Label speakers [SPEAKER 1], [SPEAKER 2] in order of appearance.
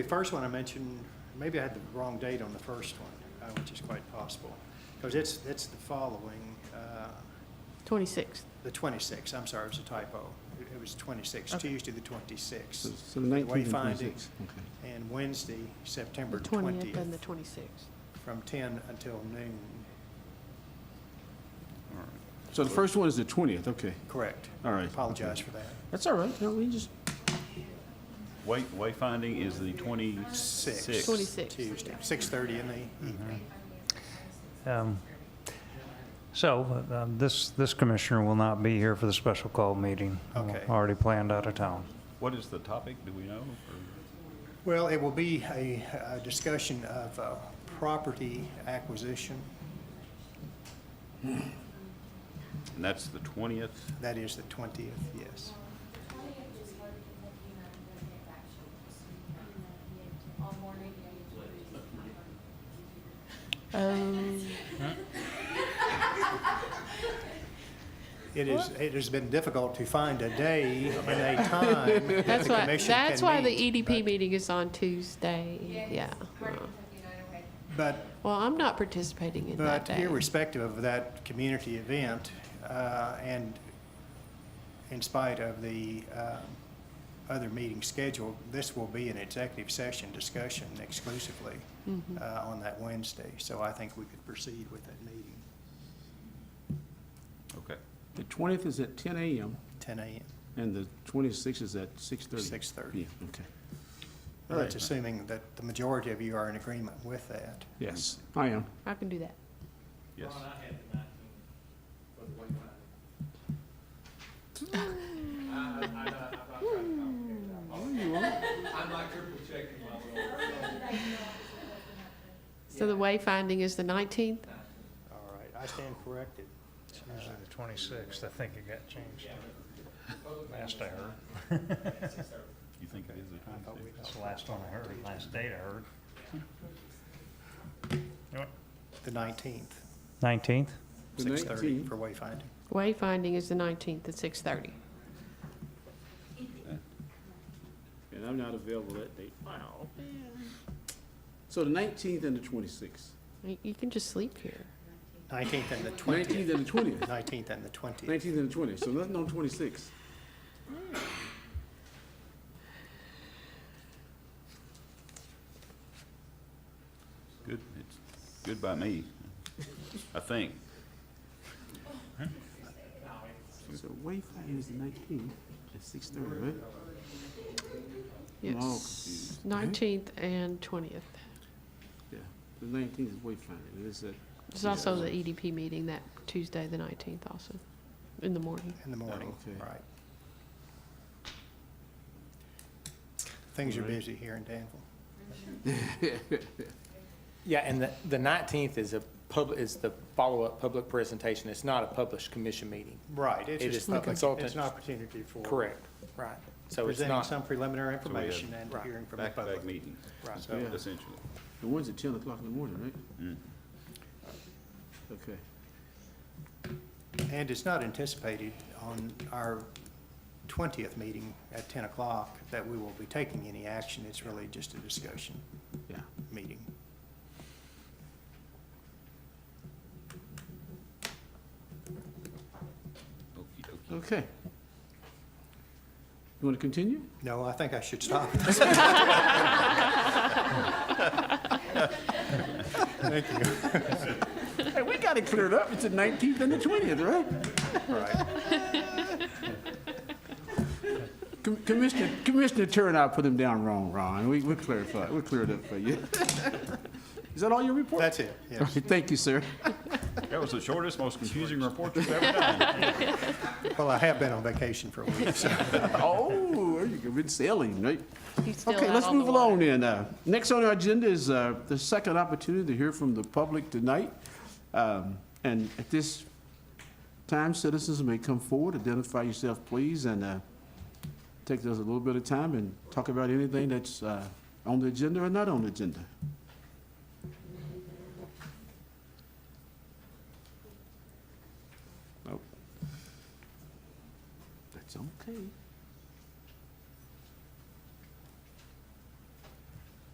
[SPEAKER 1] The first one I mentioned, maybe I had the wrong date on the first one, uh, which is quite possible, because it's, it's the following, uh,
[SPEAKER 2] 26th.
[SPEAKER 1] the 26th, I'm sorry, it was a typo. It- It was 26th,
[SPEAKER 2] Okay.
[SPEAKER 1] Tuesday, the 26th.
[SPEAKER 3] So the 19th and
[SPEAKER 1] Wayfinding.
[SPEAKER 3] 26th. Okay.
[SPEAKER 1] And Wednesday, September
[SPEAKER 2] The 20th and the
[SPEAKER 1] 20th,
[SPEAKER 2] 26th.
[SPEAKER 1] from 10 until noon.
[SPEAKER 3] So the first one is the 20th, okay.
[SPEAKER 1] Correct.
[SPEAKER 3] All right.
[SPEAKER 1] Apologize for that.
[SPEAKER 3] That's all right, no, we just,
[SPEAKER 4] Way- Wayfinding is the 26th.
[SPEAKER 2] 26th.
[SPEAKER 1] Tuesday, 6:30 in the evening.
[SPEAKER 5] Um, So uh, this, this commissioner will not be here for the special call meeting.
[SPEAKER 1] Okay.
[SPEAKER 5] Already planned out of town.
[SPEAKER 4] What is the topic, do we know? Or-
[SPEAKER 1] Well, it will be a a discussion of uh, property acquisition.
[SPEAKER 4] And that's the 20th?
[SPEAKER 1] That is the 20th, yes.
[SPEAKER 2] Um,
[SPEAKER 1] It is, it has been difficult to find a day and a time that
[SPEAKER 2] That's
[SPEAKER 1] the
[SPEAKER 2] why,
[SPEAKER 1] commission
[SPEAKER 2] that's why
[SPEAKER 1] can
[SPEAKER 2] the
[SPEAKER 1] meet.
[SPEAKER 2] EDP meeting is on Tuesday. Yeah.
[SPEAKER 1] But,
[SPEAKER 2] Well, I'm not participating in e- that
[SPEAKER 1] but
[SPEAKER 2] day.
[SPEAKER 1] irrespective of that community event, uh, and in spite of the um, other meeting scheduled, this will be an executive session discussion exclusively
[SPEAKER 2] Mm-hmm.
[SPEAKER 1] uh, on that Wednesday. So I think we could proceed with that meeting,
[SPEAKER 4] Okay.
[SPEAKER 3] the 20th is at 10 a.m.
[SPEAKER 1] 10 a.m.,
[SPEAKER 3] and the 26th is at 6:30.
[SPEAKER 1] 6:30.
[SPEAKER 3] Yeah, okay.
[SPEAKER 1] Well, That's assuming that the majority of you are in agreement with that.
[SPEAKER 3] Yes, I am.
[SPEAKER 2] I can do that.
[SPEAKER 4] Yes.
[SPEAKER 2] So the wayfinding is the 19th?
[SPEAKER 1] All right, I stand corrected.
[SPEAKER 5] It's usually the 26th. I think it got changed. Last I heard.
[SPEAKER 4] You think it is the 26th?
[SPEAKER 5] That's the last one I heard, last date I heard.
[SPEAKER 1] The 19th,
[SPEAKER 5] 19th?
[SPEAKER 3] The
[SPEAKER 1] 6:30
[SPEAKER 3] 19th.
[SPEAKER 1] for wayfinding.
[SPEAKER 2] Wayfinding is the 19th at 6:30.
[SPEAKER 3] And I'm not available that date. Wow. So the 19th and the 26th.
[SPEAKER 2] You- You can just sleep here.
[SPEAKER 1] Oh, 19th and the 20th.
[SPEAKER 3] 19th and the 20th.
[SPEAKER 1] 19th and the 20th.
[SPEAKER 3] 19th and the 20th, so nothing on 26th.
[SPEAKER 4] Good, it's good by me, I think.
[SPEAKER 3] So wayfinding is the 19th at 6:30, right? I'm all
[SPEAKER 2] Yes,
[SPEAKER 3] confused.
[SPEAKER 2] 19th and 20th.
[SPEAKER 3] Yeah, the 19th is wayfinding, and it's at,
[SPEAKER 2] There's also the EDP meeting that Tuesday, the 19th also, in the morning.
[SPEAKER 1] In the morning,
[SPEAKER 3] okay.
[SPEAKER 1] right. Things are
[SPEAKER 3] All right.
[SPEAKER 1] busy here in Danville.
[SPEAKER 6] Yeah, and the, the nineteenth is a public, is the follow-up public presentation. It's not a published commission meeting.
[SPEAKER 1] Right, it's
[SPEAKER 6] It
[SPEAKER 1] just
[SPEAKER 6] is the
[SPEAKER 1] public- It's
[SPEAKER 6] consultants.
[SPEAKER 1] an opportunity for.
[SPEAKER 6] Correct, right. So it's
[SPEAKER 1] Presenting
[SPEAKER 6] not,
[SPEAKER 1] some preliminary
[SPEAKER 4] So we have
[SPEAKER 1] information and
[SPEAKER 6] Right.
[SPEAKER 1] hearing from the
[SPEAKER 4] Back-to-back
[SPEAKER 1] public.
[SPEAKER 4] meeting,
[SPEAKER 6] right.
[SPEAKER 1] So,
[SPEAKER 3] Yeah.
[SPEAKER 4] essentially.
[SPEAKER 3] the one's at 10 o'clock in the morning, right? Okay.
[SPEAKER 1] And it's not anticipated on our 20th meeting at 10 o'clock that we will be taking any action. It's really just a discussion
[SPEAKER 3] Yeah.
[SPEAKER 1] meeting.
[SPEAKER 4] Okey dokey.
[SPEAKER 3] Okay. You want to continue?
[SPEAKER 1] No, I think I should stop. Thank you.
[SPEAKER 3] Hey, we got it cleared up. It's the 19th and the 20th, right?
[SPEAKER 1] Right.
[SPEAKER 3] Com- Commissioner, Commissioner Turnout put him down wrong, Ron. We, we clarified, we cleared up for you. Is that all your report?
[SPEAKER 1] That's it, yes.
[SPEAKER 3] Okay, Thank you, sir.
[SPEAKER 4] That was the shortest, most confusing report you've ever done.
[SPEAKER 1] Well, I have been on vacation for a week, so.
[SPEAKER 3] Oh, there you go. Been sailing, right?
[SPEAKER 2] He's still
[SPEAKER 3] Okay,
[SPEAKER 2] out
[SPEAKER 3] let's
[SPEAKER 2] on the
[SPEAKER 3] move along
[SPEAKER 2] water.
[SPEAKER 3] then. Uh, Next on our agenda is uh, the second opportunity to hear from the public tonight. Um, And at this time, citizens may come forward, identify yourself, please, and uh, take us a little bit of time and talk about anything that's uh, on the agenda or not on the agenda. Nope. Oh. That's okay.